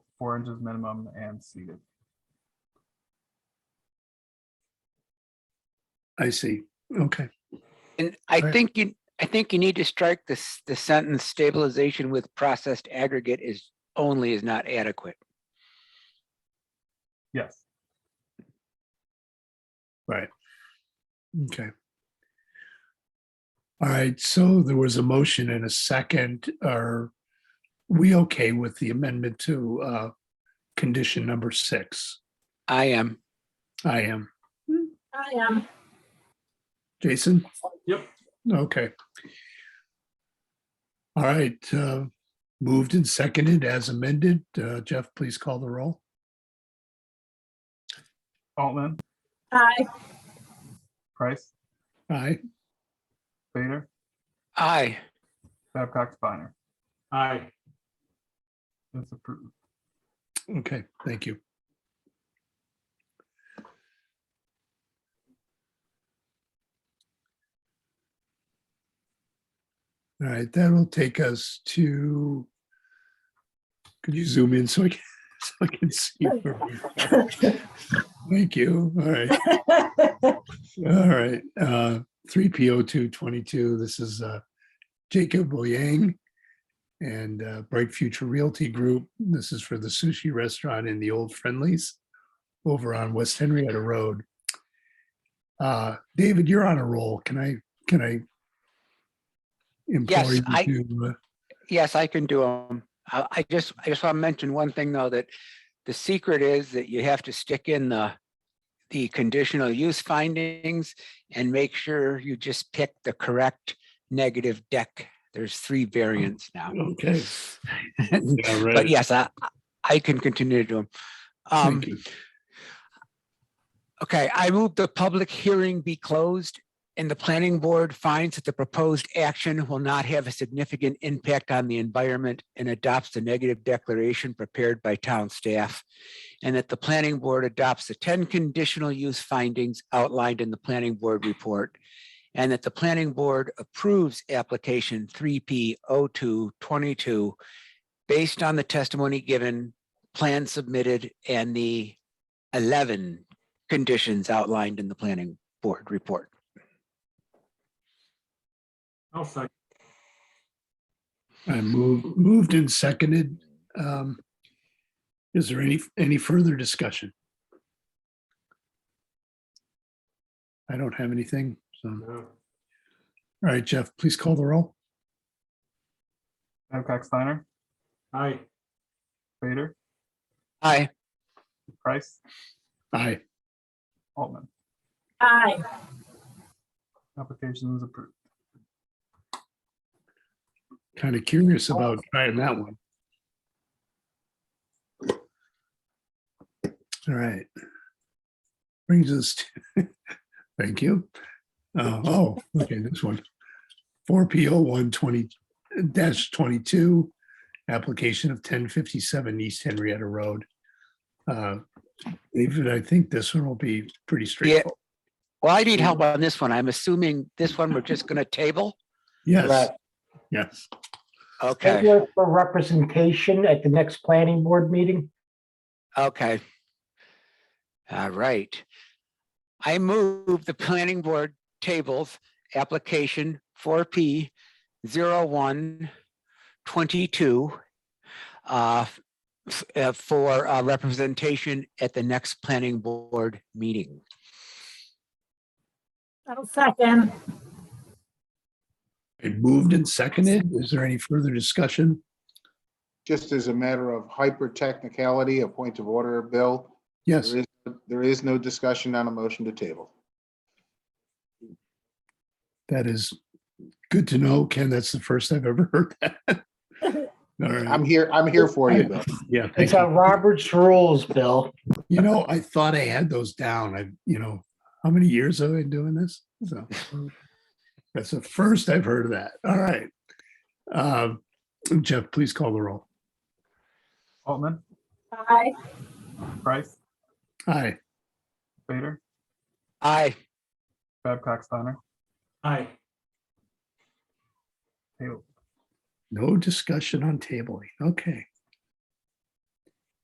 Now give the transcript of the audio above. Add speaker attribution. Speaker 1: four inches minimum and seated.
Speaker 2: I see. Okay.
Speaker 3: And I
Speaker 2: Right.
Speaker 3: think you, I think you need to strike this, the sentence stabilization with processed aggregate is only is not adequate.
Speaker 1: Yes,
Speaker 2: Right. Okay. All right, so there was a motion and a second. Are we okay with the amendment to uh condition number six?
Speaker 3: I am.
Speaker 2: I am.
Speaker 4: I am.
Speaker 2: Jason?
Speaker 1: Yep.
Speaker 2: Okay. All right, uh moved and seconded as amended. Uh Jeff, please call the roll.
Speaker 1: Altman,
Speaker 4: Aye.
Speaker 1: Price,
Speaker 2: Aye.
Speaker 1: Vader,
Speaker 3: I,
Speaker 1: Babcock, Steiner. Aye. It's approved.
Speaker 2: Okay, thank you. All right, that'll take us to, could you zoom in so I can, so I can see? where we are? Thank you. All right. All right, uh, three P O two twenty-two, this is, uh, Jacob Boyang and, uh, Bright Future Realty Group. This is for the sushi restaurant in the Old Friendlies over on West Henrietta Road. Uh, David, you're on a roll. Can I, can I? implore
Speaker 3: Yes,
Speaker 2: you
Speaker 3: I-
Speaker 2: to, uh,
Speaker 3: yes, I can do them. I, I just, I just want to mention one thing though, that the secret is that you have to stick in the, the conditional use findings and make sure you just pick the correct negative deck. There's three variants now.
Speaker 2: uh, Okay. Yeah,
Speaker 3: But
Speaker 2: right.
Speaker 3: yes, I, I can continue to do them. Um,
Speaker 2: Thank you.
Speaker 3: Okay, I move the public hearing be closed and the planning board finds that the proposed action will not have a significant impact on the environment and adopts the negative declaration prepared by town staff. And that the planning board adopts the ten conditional use findings outlined in the planning board report. And that the planning board approves application three P O two twenty-two based on the testimony given, plan submitted, and the eleven conditions outlined in the planning board report.
Speaker 1: I'll second.
Speaker 2: I moved, moved and seconded. Um, Is there any, any further discussion? I don't have anything, so. All right, Jeff, please call the roll.
Speaker 1: Babcock, Steiner. Aye. Vader,
Speaker 3: Aye,
Speaker 1: Price,
Speaker 2: Aye,
Speaker 1: Altman.
Speaker 4: Aye.
Speaker 1: Application is approved.
Speaker 2: kind of curious about trying that one. All right. Brings us, to thank you. Uh, Oh, okay, this one. Four P O one twenty dash twenty-two, application of ten fifty-seven East Henrietta Road. Uh, David, I think this one will be pretty straightforward.
Speaker 3: well, I need help on this one. I'm assuming this one we're just gonna table?
Speaker 2: Yes,
Speaker 5: Right.
Speaker 2: yes.
Speaker 3: Okay,
Speaker 5: Table it For representation at the next planning board meeting.
Speaker 3: okay. All right. I move the planning board tables application four P 01 one twenty-two uh, f- uh, for uh, representation at the next planning board meeting.
Speaker 4: I'll second.
Speaker 2: It moved and seconded. Is there any further discussion?
Speaker 6: just as a matter of hyper technicality, a point of order, Bill,
Speaker 2: Yes,
Speaker 6: there is, there is no discussion on a motion to table.
Speaker 2: that is good to know, Ken. That's the first I've ever heard that. All right.
Speaker 6: I'm here, I'm here for you, Bill.
Speaker 2: Yeah. thank
Speaker 5: It's
Speaker 2: you.
Speaker 5: on Robert's rules, Bill.
Speaker 2: You know, I thought I had those down. I, you know, how many years have I been doing this? So that's the first I've heard of that. All right. Uh, Jeff, please call the roll.
Speaker 1: Altman,
Speaker 4: Aye.
Speaker 1: Price,
Speaker 2: Aye.
Speaker 1: Vader,
Speaker 3: Aye,
Speaker 1: Babcock, Steiner. Aye. Table.
Speaker 2: No discussion on tabling. Okay.